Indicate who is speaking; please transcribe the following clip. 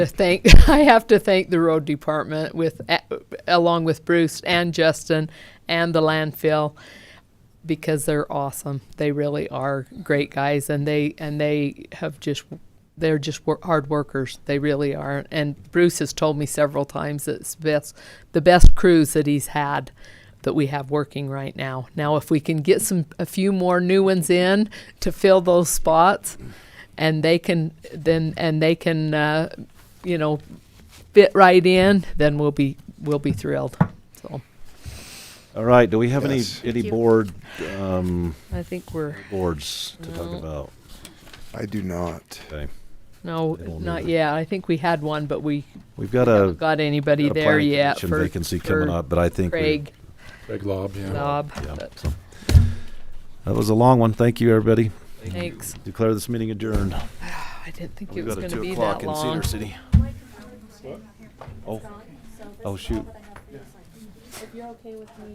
Speaker 1: to thank I have to thank the road department with along with Bruce and Justin and the landfill because they're awesome. They really are great guys and they and they have just they're just wor- hard workers. They really are. And Bruce has told me several times that it's best the best crews that he's had that we have working right now. Now if we can get some a few more new ones in to fill those spots, and they can then and they can uh, you know fit right in then we'll be we'll be thrilled so
Speaker 2: All right, do we have any,
Speaker 3: Yes.
Speaker 2: any
Speaker 4: you.
Speaker 2: board, um,
Speaker 1: i think we're
Speaker 2: boards to talk
Speaker 1: No.
Speaker 2: about?
Speaker 3: I do not.
Speaker 2: Okay,
Speaker 1: no
Speaker 2: They don't
Speaker 1: not
Speaker 2: either.
Speaker 1: yet i think we had one but we
Speaker 2: we've got
Speaker 1: haven't
Speaker 2: a.
Speaker 1: got anybody
Speaker 2: a
Speaker 1: there
Speaker 2: planning
Speaker 1: yet
Speaker 2: commission
Speaker 1: for
Speaker 2: Vacancy coming
Speaker 1: for
Speaker 2: up, but I think. we-
Speaker 1: craig
Speaker 5: Big lob, yeah.
Speaker 1: Bob.
Speaker 2: yeah,
Speaker 1: but
Speaker 2: so. That was a long one. Thank you, everybody.
Speaker 1: thanks
Speaker 2: Declare this meeting adjourned.
Speaker 1: i didn't think it
Speaker 2: We've
Speaker 1: was
Speaker 2: got
Speaker 1: going
Speaker 2: a
Speaker 1: to
Speaker 2: two
Speaker 1: be
Speaker 2: o'clock
Speaker 1: that
Speaker 2: in
Speaker 1: long
Speaker 2: Cedar City. Oh. Oh, shoot.
Speaker 6: If you're okay with me